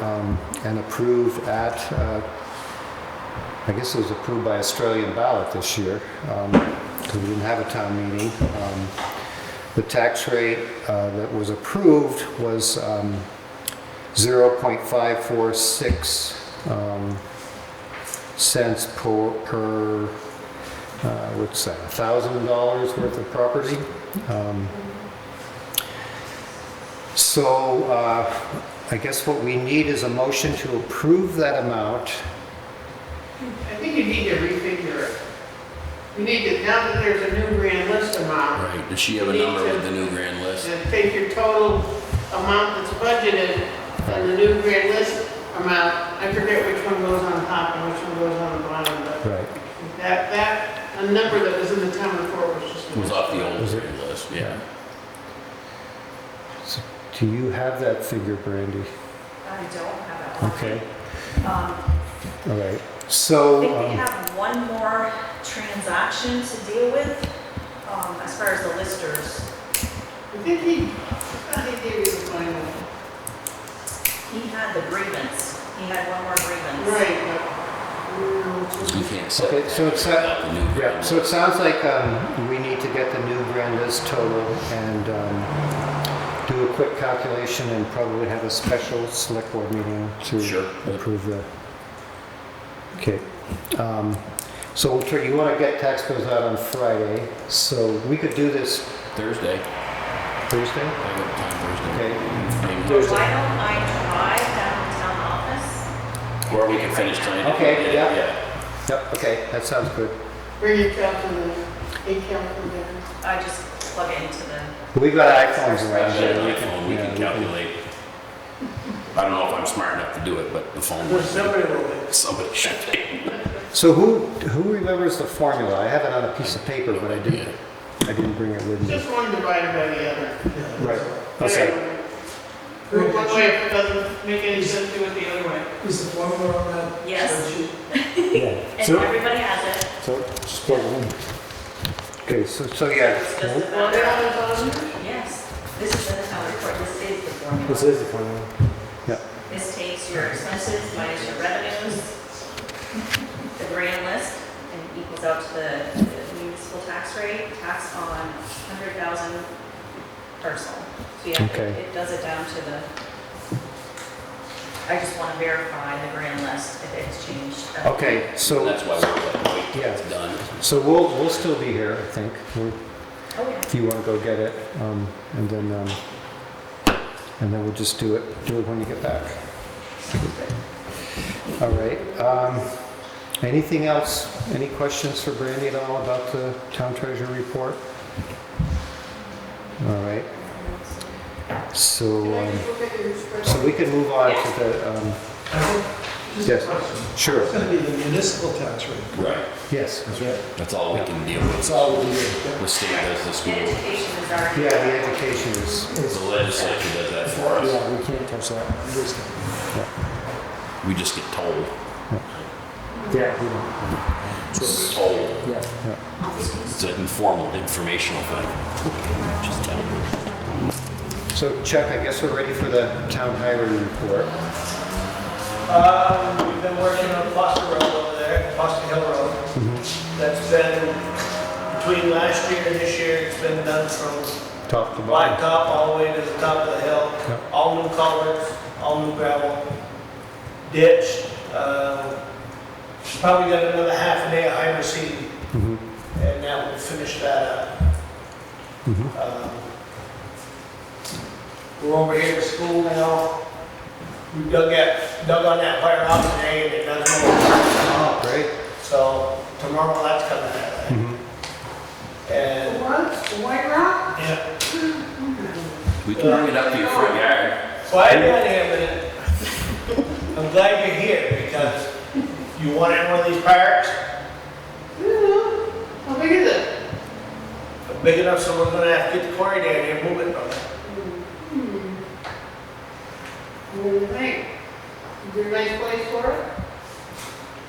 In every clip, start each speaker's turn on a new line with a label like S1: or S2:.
S1: um, and approved at, uh, I guess it was approved by Australian ballot this year, because we didn't have a town meeting. Um, The tax rate uh, that was approved was um, 0.546 um, cents per, per, uh, what's that, $1,000 worth of property. Um, So uh, I guess what we need is a motion to approve that amount.
S2: I think you need to refigure it. You need to, now that there's a new grand list amount,
S3: Right, does she have a number with the new grand list?
S2: and take your total amount that's budgeted and the new grand list amount, I forget which one goes on top and which one goes on the bottom, but
S1: Right.
S2: that, that, a number that was in the town report was just.
S3: It was off the old
S1: Was it?
S3: grand list, yeah.
S1: Do you have that figure, Brandy?
S4: I don't have it.
S1: Okay,
S4: Um,
S1: all right.
S4: I
S1: So,
S4: think we
S1: um,
S4: have one more transaction to deal with, um, as far as the listers.
S2: I think he, I thought he gave you the final.
S4: He had the grievance, he had one more grievance.
S2: Right, but, mm,
S3: You can't set
S1: Okay, so it's
S3: that
S1: not-
S3: without the new
S1: yeah,
S3: grand
S1: so
S3: list.
S1: it sounds like um, we need to get the new grand list total and um, do a quick calculation and probably have a special select board meeting to
S3: Sure.
S1: approve the, okay. Um, So we'll try- you want to get tax bills out on Friday, so we could do this
S3: Thursday,
S1: Thursday?
S3: I got
S1: Okay.
S3: time Thursday. Maybe
S4: Why don't
S3: Thursday.
S4: I drive down to town office?
S3: Or we can finish tonight.
S1: Okay, yeah. Yep, okay, that sounds good.
S2: Bring your calculator, a calculator.
S4: I just plug into the,
S1: We've got iPhones around
S3: Rather
S1: here.
S3: than iPhone, we can
S1: yeah,
S3: calculate. I don't know if I'm smart enough to do it, but the phone,
S2: There's somebody will be.
S3: somebody should be.
S1: So who, who remembers the formula? I have it on a piece of paper, but I didn't, I didn't bring it with me.
S2: Just one divided by the other.
S1: Right, okay.
S2: One way doesn't make any sense, do it the other way.
S5: Is the formula on that?
S4: Yes.
S5: spreadsheet?
S1: Yeah.
S4: and
S1: So,
S4: everybody has it,
S1: so, just plug it in. Okay, so, so yeah.
S4: it's just a
S2: Well, they're
S4: matter of-
S2: all on there.
S4: yes, this is in the town report, this is the formula.
S1: is the formula.
S4: This takes your expenses minus your revenues, the grand list, and equals out to the the municipal tax rate, tax on 100,000 personal. So yeah, it-
S1: Okay.
S4: it does it down to the, I just want to verify the grand list if it's changed.
S1: Okay, so,
S3: That's why we're like, wait,
S1: Yeah.
S3: it's done.
S1: so we'll, we'll still be here, I think, We're-
S4: Oh, yeah.
S1: if you want to go get it. Um, and then, um, and then we'll just do it, do it when you get back. All right, um, anything else? Any questions for Brandy at all about the town treasurer report? All right, so,
S2: Can I
S1: um,
S2: just look at your
S1: so
S2: spreadsheet?
S1: we can move on to the, um,
S5: I think- Just a
S1: Yes.
S5: question.
S1: sure,
S5: It's gonna be the municipal tax rate.
S3: Right,
S1: yes. That's right.
S3: that's all we can deal
S5: That's
S3: with.
S5: all we do.
S3: The state does the
S4: And
S3: school,
S4: education is already.
S1: Yeah, the education is,
S3: the legislature does that for us.
S5: Yeah, we can't touch that. We just can't.
S3: We just get told.
S5: Yeah.
S3: It's told.
S5: Yeah.
S3: It's an informal, informational thing. Just tell them.
S1: so Chuck, I guess we're ready for the town highway report.
S6: Um, we've been working on Foster Road over there, Foster Hill Road. That's been, between last year and this year, it's been done from
S1: Top to bottom.
S6: blacktop all the way to the top of the
S1: Yep.
S6: hill. All new colors, all new gravel, ditch, uh, probably got another half a day of hydro seeding,
S1: Mhm,
S6: and that will finish that
S1: mhm.
S6: up. Um, We're over here at school now. We dug that, dug on that fire out today, and it doesn't move.
S1: Great.
S6: So tomorrow that's coming out.
S1: Mhm.
S2: The
S6: And,
S2: What? The White Rock?
S6: yeah,
S3: We can bring it up to your front yard.
S6: so I got here, minute. I'm glad you're here because you want in one of these parks,
S2: I don't know. How big is it?
S6: big enough so we're gonna have to get the quarry down here and move it from there.
S2: Hmm. What do you think? Is there a nice place for it?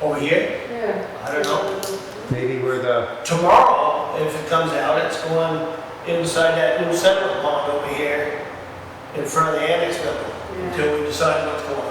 S6: Over here,
S2: Yeah. Um,
S6: I don't know.
S1: Maybe we're the,
S6: Tomorrow, if it comes out, it's going inside that new settlement pond over here in front of the annex building until we decide what's going